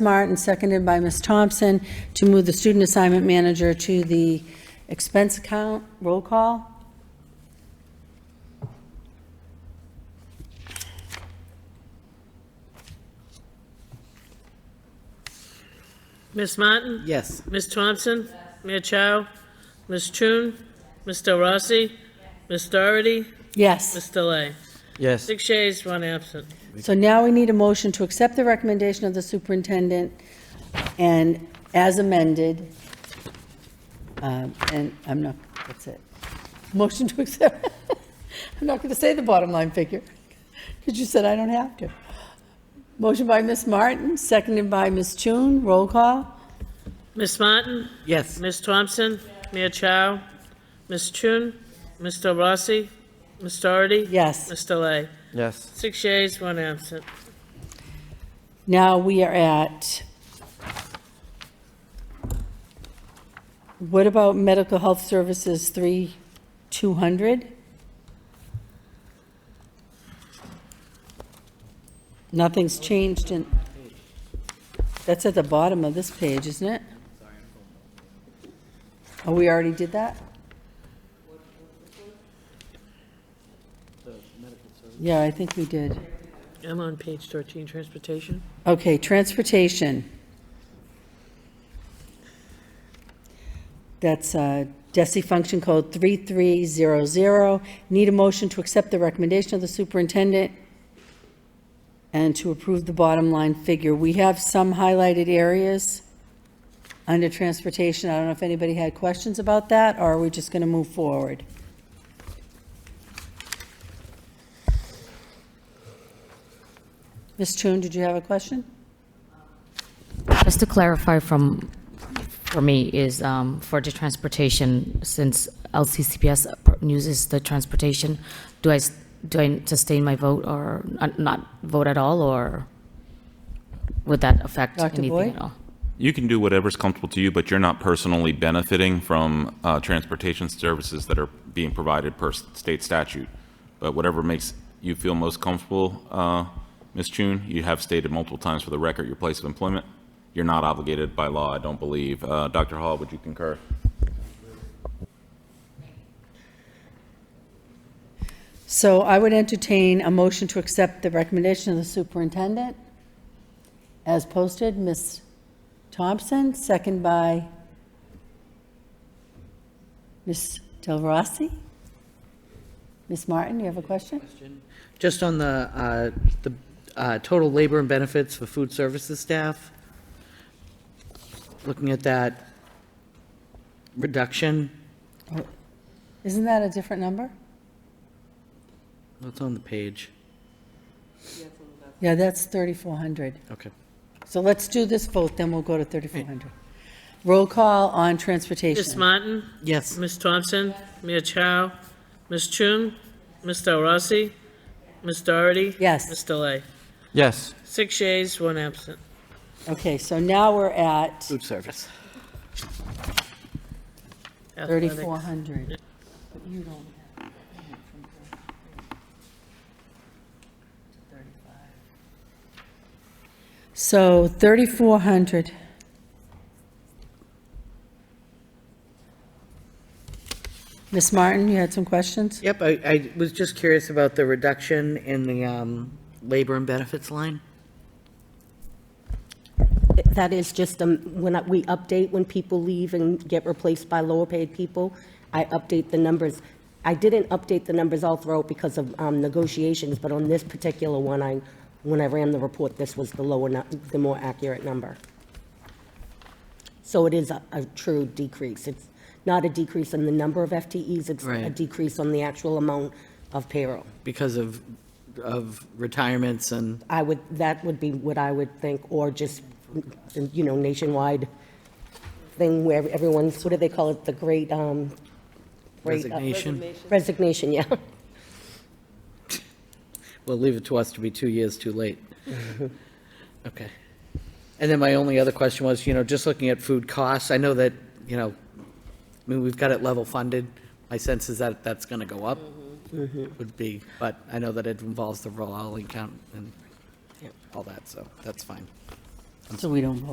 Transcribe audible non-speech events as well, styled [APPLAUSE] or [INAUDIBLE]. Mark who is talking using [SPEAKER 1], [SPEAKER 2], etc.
[SPEAKER 1] Smart and seconded by Ms. Thompson to move the student assignment manager to the expense account. Roll call?
[SPEAKER 2] Ms. Martin?
[SPEAKER 3] Yes.
[SPEAKER 2] Ms. Thompson? Mia Chow? Ms. Chun? Mr. Rossi? Ms. Doherty?
[SPEAKER 1] Yes.
[SPEAKER 2] Ms. Delay?
[SPEAKER 3] Yes.
[SPEAKER 2] Six yeas, one absent.
[SPEAKER 1] So now we need a motion to accept the recommendation of the superintendent and as amended. Um, And I'm not, that's it. Motion to accept. [LAUGHS] I'm not going to say the bottom line figure because you said I don't have to. Motion by Ms. Martin, seconded by Ms. Chun. Roll call?
[SPEAKER 2] Ms. Martin?
[SPEAKER 3] Yes.
[SPEAKER 2] Ms. Thompson? Mia Chow? Ms. Chun? Mr. Rossi? Ms. Doherty?
[SPEAKER 1] Yes.
[SPEAKER 2] Ms. Delay?
[SPEAKER 3] Yes.
[SPEAKER 2] Six yeas, one absent.
[SPEAKER 1] Now we are at, what about medical health services, three, two hundred? Nothing's changed in, that's at the bottom of this page, isn't it? Oh, we already did that? Yeah, I think we did.
[SPEAKER 2] I'm on page 13, Transportation.
[SPEAKER 1] Okay, transportation. That's uh, DESI function code 3300. Need a motion to accept the recommendation of the superintendent and to approve the bottom line figure. We have some highlighted areas under transportation. I don't know if anybody had questions about that, or are we just going to move forward? Ms. Chun, did you have a question?
[SPEAKER 4] Just to clarify from, for me, is um, for the transportation, since LCCPS uses the transportation, do I, s- do I sustain my vote or n- not vote at all, or would that affect
[SPEAKER 1] Dr.
[SPEAKER 4] anything
[SPEAKER 1] Boyd?
[SPEAKER 4] at all?
[SPEAKER 5] You can do whatever's comfortable to you, but you're not personally benefiting from uh, transportation services that are being provided per s- state statute. But whatever makes you feel most comfortable, uh, Ms. Chun, you have stated multiple times for the record your place of employment. You're not obligated by law, I don't believe. Uh, Dr. Hall, would you concur?
[SPEAKER 1] So I would entertain a motion to accept the recommendation of the superintendent as posted. Ms. Thompson, second by Ms. Del Rossi. Ms. Martin, you have a question?
[SPEAKER 3] Just on the, uh, the uh, total labor and benefits for food services staff, looking at that reduction,
[SPEAKER 1] Isn't that a different number?
[SPEAKER 3] what's on the page?
[SPEAKER 1] Yeah, that's 3,400.
[SPEAKER 3] Okay.
[SPEAKER 1] So let's do this vote, then we'll go to 3,400. Roll call on
[SPEAKER 2] Ms.
[SPEAKER 1] transportation.
[SPEAKER 2] Martin?
[SPEAKER 3] Yes.
[SPEAKER 2] Ms. Thompson? Mia Chow? Ms. Chun? Mr. Rossi? Ms. Doherty?
[SPEAKER 1] Yes.
[SPEAKER 2] Ms. Delay?
[SPEAKER 3] Yes.
[SPEAKER 2] Six yeas, one absent.
[SPEAKER 1] Okay, so now we're at
[SPEAKER 3] Food service.
[SPEAKER 2] Athletics.
[SPEAKER 1] 3,400. So 3,400. Ms. Martin, you had some questions?
[SPEAKER 3] Yep, I, I was just curious about the reduction in the um, labor and benefits line.
[SPEAKER 6] That is just, um, when I- we update, when people leave and get replaced by lower-paid people, I update the numbers. I didn't update the numbers all throughout because of um, negotiations, but on this particular one, I, when I ran the report, this was the lower, nu- the more accurate number. So it is a a true decrease. It's not a decrease in the number of FTEs, it's a
[SPEAKER 3] Right.
[SPEAKER 6] decrease on the actual amount of payroll.
[SPEAKER 3] Because of, of retirements and,
[SPEAKER 6] I would, that would be what I would think, or just, you know, nationwide thing where everyone's, what do they call it, the great, um, great, uh,
[SPEAKER 3] Resignation.
[SPEAKER 6] Resignation, yeah.
[SPEAKER 3] Well, leave it to us to be two years too late. [LAUGHS] Okay. And then my only other question was, you know, just looking at food costs, I know that, you know, I mean, we've got it level funded. My sense is that that's going to go up, would be, but I know that it involves the rolling count and all that, so that's fine.
[SPEAKER 1] so we don't vote.